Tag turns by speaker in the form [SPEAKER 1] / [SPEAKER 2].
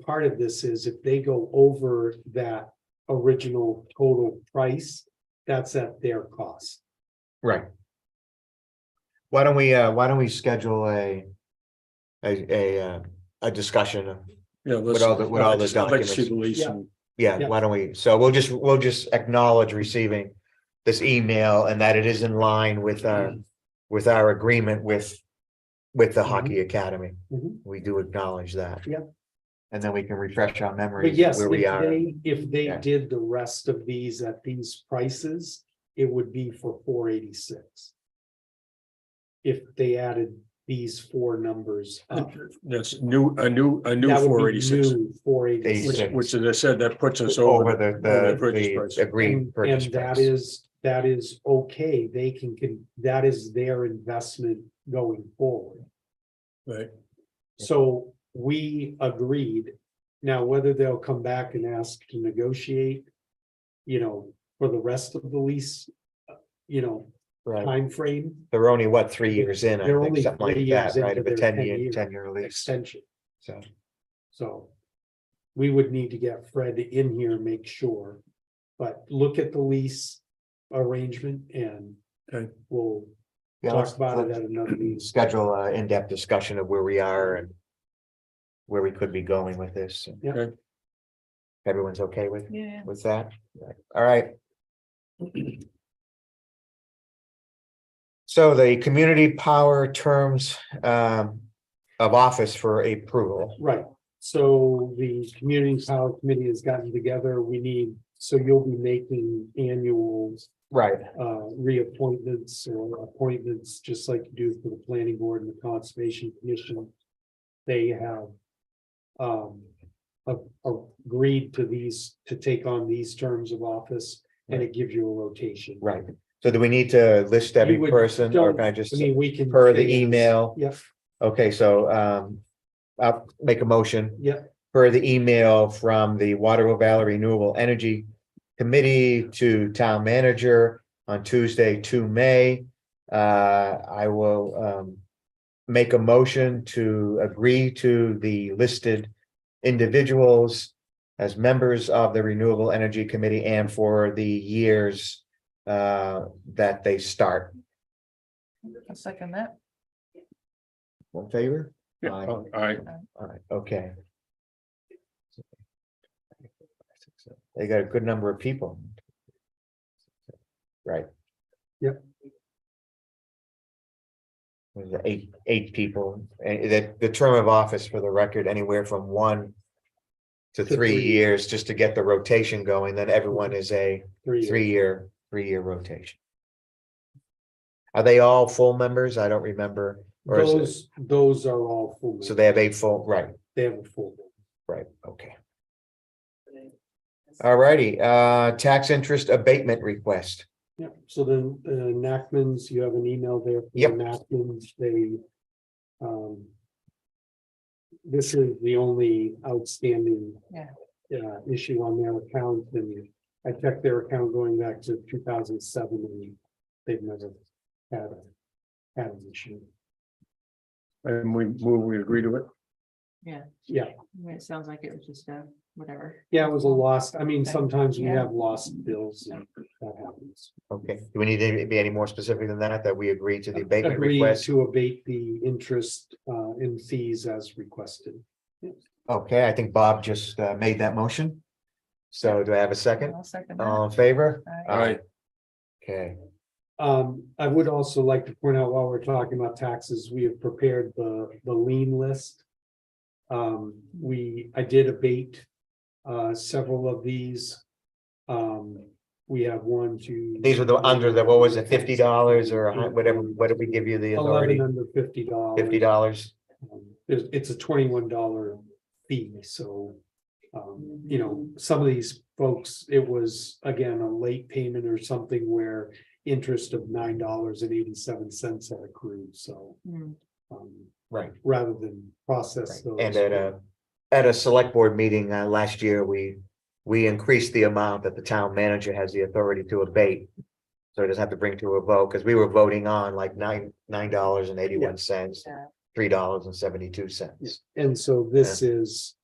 [SPEAKER 1] part of this is if they go over that original total price, that's at their cost.
[SPEAKER 2] Right. Why don't we, uh, why don't we schedule a, a, a, uh, a discussion?
[SPEAKER 3] Yeah. let's-
[SPEAKER 2] all the- with all the
[SPEAKER 3] I'd like to see
[SPEAKER 2] documents.
[SPEAKER 3] the lease
[SPEAKER 1] Yeah.
[SPEAKER 3] and-
[SPEAKER 2] Yeah,
[SPEAKER 1] Yeah.
[SPEAKER 2] why don't we, so we'll just, we'll just acknowledge receiving this email and that it is in line with
[SPEAKER 1] Mm-hmm.
[SPEAKER 2] our, with our agreement with, with the hockey academy.
[SPEAKER 1] Mhm.
[SPEAKER 2] We do acknowledge that.
[SPEAKER 1] Mm-hmm. Yeah.
[SPEAKER 2] And then we can refresh our
[SPEAKER 1] But
[SPEAKER 2] memories of
[SPEAKER 1] yes,
[SPEAKER 2] where
[SPEAKER 1] if
[SPEAKER 2] we are.
[SPEAKER 1] they, if they
[SPEAKER 2] Yeah.
[SPEAKER 1] did the rest of these at these prices, it would be for four eighty-six. If they added these four numbers up.
[SPEAKER 3] That's new, a new, a new four eighty-six,
[SPEAKER 1] Four
[SPEAKER 3] which,
[SPEAKER 1] eighty-six.
[SPEAKER 2] 86.
[SPEAKER 3] which as I said, that puts us
[SPEAKER 2] Over the,
[SPEAKER 3] over
[SPEAKER 2] the,
[SPEAKER 3] the purchase price.
[SPEAKER 2] the agreed
[SPEAKER 1] And
[SPEAKER 2] purchase
[SPEAKER 1] and that
[SPEAKER 2] price.
[SPEAKER 1] is, that is okay, they can, can, that is their investment going forward.
[SPEAKER 3] Right.
[SPEAKER 1] So we agreed. Now, whether they'll come back and ask to negotiate, you know, for the rest of the lease, uh, you know,
[SPEAKER 2] Right.
[SPEAKER 1] time frame
[SPEAKER 2] They're only, what, three years in, I
[SPEAKER 1] They're
[SPEAKER 2] think,
[SPEAKER 1] only
[SPEAKER 2] something like
[SPEAKER 1] three
[SPEAKER 2] that,
[SPEAKER 1] years
[SPEAKER 2] right?
[SPEAKER 1] into
[SPEAKER 2] Of a
[SPEAKER 1] their
[SPEAKER 2] ten-year,
[SPEAKER 1] 10-year
[SPEAKER 2] ten-year lease,
[SPEAKER 1] extension,
[SPEAKER 2] so.
[SPEAKER 1] so. We would need to get Fred in here, and make sure, but look at the lease arrangement and
[SPEAKER 3] Okay.
[SPEAKER 1] we'll
[SPEAKER 2] Yeah,
[SPEAKER 1] talk
[SPEAKER 2] let's-
[SPEAKER 1] about it
[SPEAKER 2] let's
[SPEAKER 1] at another meeting.
[SPEAKER 2] Schedule an in-depth discussion of where we are and where we could be going with this. and-
[SPEAKER 1] Yeah.
[SPEAKER 3] Okay.
[SPEAKER 2] Everyone's okay with,
[SPEAKER 4] Yeah.
[SPEAKER 2] with that? All right. So the community power terms um of office for approval.
[SPEAKER 1] Right, so the community power committee has gotten together, we need, so you'll be making annuals.
[SPEAKER 2] Right.
[SPEAKER 1] Uh, reappointments or appointments, just like you do for the planning board and the conservation commission. They have. Um, a- a- agreed to these, to take on these terms of office, and it gives you a rotation.
[SPEAKER 2] Right. So do we need to list every
[SPEAKER 1] You would-
[SPEAKER 2] person or can I
[SPEAKER 1] don't-
[SPEAKER 2] just,
[SPEAKER 1] I mean, we can.
[SPEAKER 2] per the email?
[SPEAKER 1] Yes,
[SPEAKER 2] Okay, so um I'll make a motion.
[SPEAKER 1] yeah,
[SPEAKER 2] per the email from the Waterville Valley Renewable Energy Committee to Town Manager on Tuesday, two May. Uh, I will um make a motion to agree to the listed individuals as members of the Renewable Energy Committee and for the years uh that they start.
[SPEAKER 4] I'll second that.
[SPEAKER 2] One favor?
[SPEAKER 3] Yeah,
[SPEAKER 2] Aye.
[SPEAKER 3] all right,
[SPEAKER 2] All right, okay. They got a good number of people. Right.
[SPEAKER 1] Yep.
[SPEAKER 2] Was it Eight, eight people, and the, the term of office for the record, anywhere from one
[SPEAKER 1] To
[SPEAKER 2] to three
[SPEAKER 1] three.
[SPEAKER 2] years, just to get the rotation going, then everyone is a
[SPEAKER 1] three.
[SPEAKER 2] three-year, three-year rotation. Are they all full members? I don't remember. Or is it-
[SPEAKER 1] Those, those are all full.
[SPEAKER 2] So they have eight full, right?
[SPEAKER 1] They have a full.
[SPEAKER 2] Right, okay. Alrighty, uh, tax interest abatement request.
[SPEAKER 1] Yeah, so then uh Nachman's, you have an email there. from
[SPEAKER 2] Yep.
[SPEAKER 1] Nachman's, they. Um. This is the only outstanding.
[SPEAKER 4] Yeah.
[SPEAKER 1] uh, issue on their account and I checked their account going back to two thousand seven and they've never had a. Had an issue.
[SPEAKER 3] and we move, we agree to it.
[SPEAKER 4] I mean, It sounds like it was just a whatever.
[SPEAKER 1] Yeah, it was a lost, I mean,
[SPEAKER 4] Okay.
[SPEAKER 1] sometimes we
[SPEAKER 4] Yeah.
[SPEAKER 1] have lost bills and that happens.
[SPEAKER 2] Okay, do we need to be any more specific than that, that we agree to the
[SPEAKER 1] Uh,
[SPEAKER 2] abatement
[SPEAKER 1] Agree
[SPEAKER 2] request?
[SPEAKER 1] to abate the interest uh in fees as requested.
[SPEAKER 2] Okay, I think Bob just uh, made that motion. So do I have a second?
[SPEAKER 4] I'll second
[SPEAKER 2] All
[SPEAKER 4] that.
[SPEAKER 2] in favor?
[SPEAKER 4] Aye.
[SPEAKER 3] Aye.
[SPEAKER 2] Okay,
[SPEAKER 1] Um, I would also like to point out while we're talking about taxes, we have prepared the, the lien list. Um, we, I did abate, uh, several of these. Um, we have one, two.
[SPEAKER 2] these are the, under the, what was it, fifty dollars or a hun- whatever, what did we give you the
[SPEAKER 1] Eleven
[SPEAKER 2] authority?
[SPEAKER 1] under fifty dollars.
[SPEAKER 2] Fifty dollars?
[SPEAKER 1] It's, um, it's a twenty-one dollar fee, so. Um, you know, some of these folks, it was again, a late payment or something where interest of nine dollars and eighty-seven cents had accrued, so.
[SPEAKER 4] Hmm,
[SPEAKER 1] um,
[SPEAKER 2] Right.
[SPEAKER 1] rather than process
[SPEAKER 2] Right.
[SPEAKER 1] those.
[SPEAKER 2] And at a, at a select board meeting uh last year, we, we increased the amount that the town manager has the authority to abate. So it doesn't have to bring to a vote, because we were voting on like nine, nine dollars and eighty-one cents,
[SPEAKER 4] Yeah.
[SPEAKER 2] three dollars and seventy-two cents.
[SPEAKER 1] And so this is